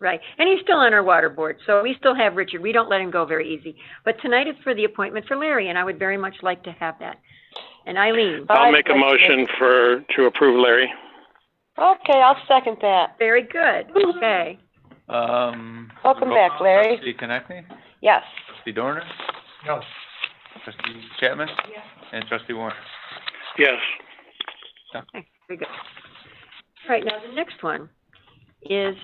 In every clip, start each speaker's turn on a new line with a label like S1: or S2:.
S1: Right, and he's still on our water board, so we still have Richard, we don't let him go very easy. But tonight is for the appointment for Larry, and I would very much like to have that. And Eileen,
S2: I'd
S3: I'll make a
S2: like to
S3: motion for, to approve Larry.
S2: Okay, I'll second that.
S1: very good, okay.
S4: Um.
S2: Welcome
S4: roll call,
S2: back, Larry.
S4: Trustee Connectney,
S2: Yes.
S4: trustee Dorner,
S5: No.
S4: trustee Chapman? And trustee Warner.
S3: Yes.
S1: Okay, very good. All right, now the next one is,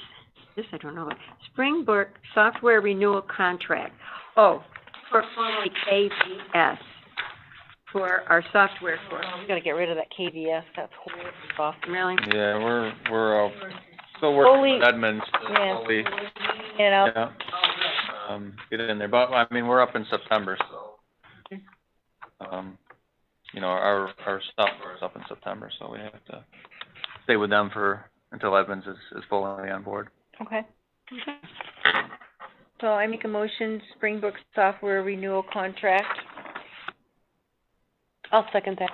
S1: this I don't know, Springbrook Software Renewal Contract. Oh, for formerly KVS, for our software for,
S2: Well, we gotta get rid of that KVS, that's horrible. stuff.
S1: really?
S4: Yeah, we're, we're, uh, still
S2: Fully-
S4: working with Edmonds.
S2: yeah. You know,
S4: Yeah. Um, get it in there, but, I mean, we're up in September, so. Um, you know, our, our software is up in September, so we have to stay with them for, until Edmonds is, is fully on board.
S6: Okay. So I make a motion, Springbrook Software Renewal Contract
S2: I'll second that.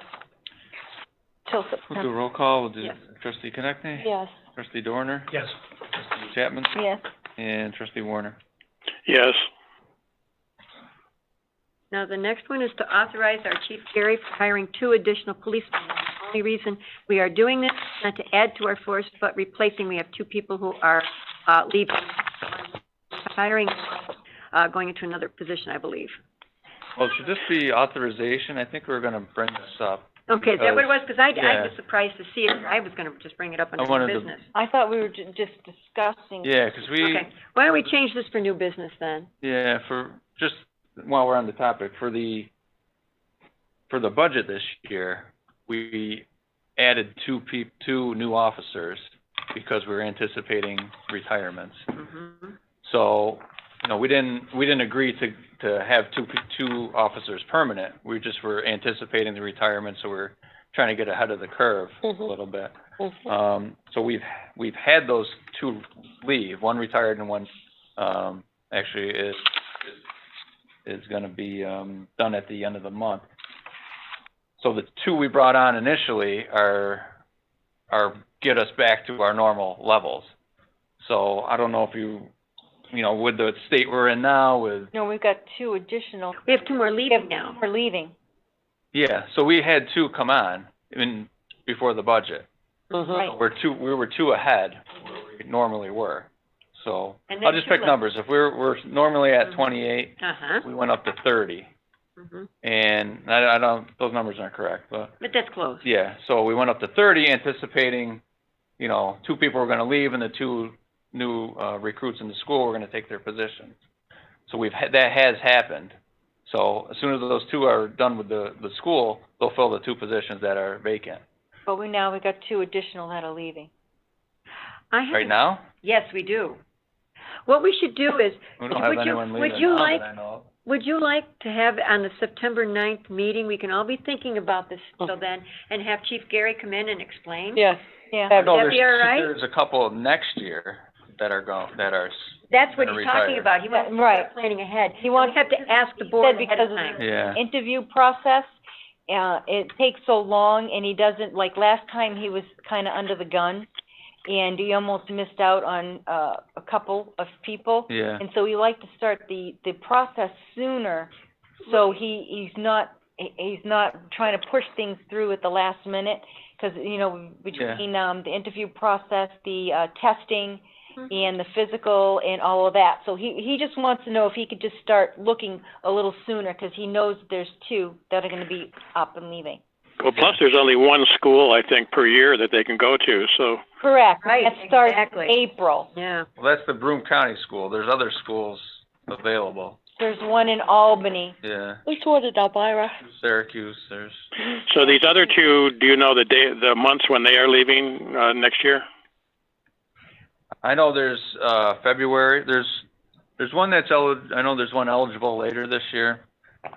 S2: Till
S4: We'll do a
S2: September,
S4: roll call, we'll do
S1: Yes.
S4: trustee Connectney,
S2: yes.
S4: trustee Dorner,
S5: Yes.
S4: trustee Chapman,
S6: Yes.
S4: and trustee Warner.
S3: Yes.
S1: Now, the next one is to authorize our Chief Gary for hiring two additional policemen. The only reason we are doing this is not to add to our force, but replacing. We have two people who are, uh, leaving, hiring, uh, going into another position, I believe.
S4: Well, Oh, should this be authorization? I think we we're gonna bring this up.
S1: Okay, is that what it was? Because I, I was
S4: Yeah.
S1: surprised to see it. I was gonna just bring it up
S4: I wanted
S1: under new
S4: to-
S1: business.
S2: I thought we were ju- just discussing.
S4: Yeah, 'cause we,
S1: Okay, why don't we change this for new business then?
S4: Yeah, for, just while we're on the topic, for the, for the budget this year, we added two peop, two new officers because we were anticipating retirements.
S1: Mhm.
S4: So, you know, we didn't, we didn't agree to, to have two, pe- two officers permanent. We just were anticipating the retirement, so we're trying to get ahead of the curve
S2: Mhm.
S4: a little bit.
S2: Mhm.
S4: Um, so we've, we've had those two leave, one retired and one, um, actually is, is gonna be, um, done at the end of the month. So the two we brought on initially are, are, get us back to our normal levels. So I don't know if you, you know, with the state we're in now with,
S6: No, we've got two additional.
S1: We have two more leaving now.
S6: We're leaving.
S4: yeah, so we had two come on in, before the budget.
S2: Mhm.
S4: We're two, we were two ahead where we normally were. So,
S1: And
S4: I'll
S1: then
S4: just pick
S1: Tula.
S4: numbers. If we're, we're normally at
S1: Mhm.
S4: twenty-eight,
S1: Uh-huh,
S4: we went up to thirty.
S1: mhm.
S4: And I, I don't, those numbers aren't correct, but,
S1: But that's close.
S4: yeah, so we went up to thirty anticipating, you know, two people were gonna leave and the two new, uh, recruits in the school were gonna take their positions. So we've had, that has happened. So as soon as those two are done with the, the school, they'll fill the two positions that are vacant.
S6: But we, now we've got two additional that are leaving.
S1: I have
S4: Right now,
S1: Yes, we do. What we should do is,
S4: we don't
S1: Would
S4: have
S1: you-
S4: anyone
S1: would
S4: leaving
S1: you
S4: now that
S1: like-
S4: I know of.
S1: Would you like to have on the September ninth meeting, we can all be thinking about this till then, and have Chief Gary come in and explain?
S2: Yes.
S6: Mm-hmm. Yeah.
S4: No,
S1: Would that
S4: there's,
S1: be all right?
S4: there's a couple next year that are go, that are, s-
S1: That's what
S4: Gonna
S1: he's talking
S4: retire.
S1: about, he wants to
S6: Right.
S1: start planning ahead.
S6: He wants-
S1: We have to ask the
S6: He
S1: board
S6: said
S1: ahead
S6: because
S1: of
S6: of
S1: time.
S4: yeah,
S6: Interview process, uh, it takes so long and he doesn't, like, last time he was kinda under the gun and he almost missed out on, uh, a couple of people.
S4: yeah.
S6: And so we like to start the, the process sooner, so he, he's not, he- he's not trying to push things through at the last minute, 'cause, you know, between, um, the interview process, the, uh, testing,
S1: Mhm.
S6: and the physical and all of that. So he, he just wants to know if he could just start looking a little sooner, 'cause he knows there's two that are gonna be up and leaving.
S3: Well, plus there's only one school, I think, per year that they can go to, so.
S6: Correct.
S1: Right,
S6: That starts
S1: exactly.
S6: April.
S1: Yeah,
S4: Well, that's the Broome County School, there's other schools available,
S6: There's one in Albany.
S4: yeah,
S2: Which one is Elvira?
S4: Syracuse, there's,
S3: So these other two, do you know the day, the months when they are leaving, uh, next year?
S4: I know there's, uh, February, there's, there's one that's el, I know there's one eligible later this year.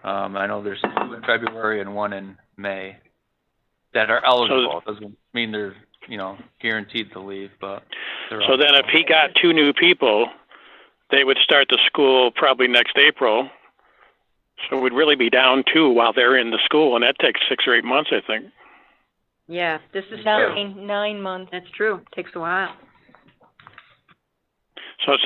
S4: Um, I know there's two in February and one in May that are eligible, doesn't mean they're, you know, guaranteed to leave, but they're
S3: So then if
S4: eligible.
S3: he got two new people, they would start the school probably next April. So we'd really be down two while they're in the school, and that takes six or eight months, I think.
S1: yeah, this is true,
S6: Nine, nine months.
S1: that's true, takes a while.
S3: So it's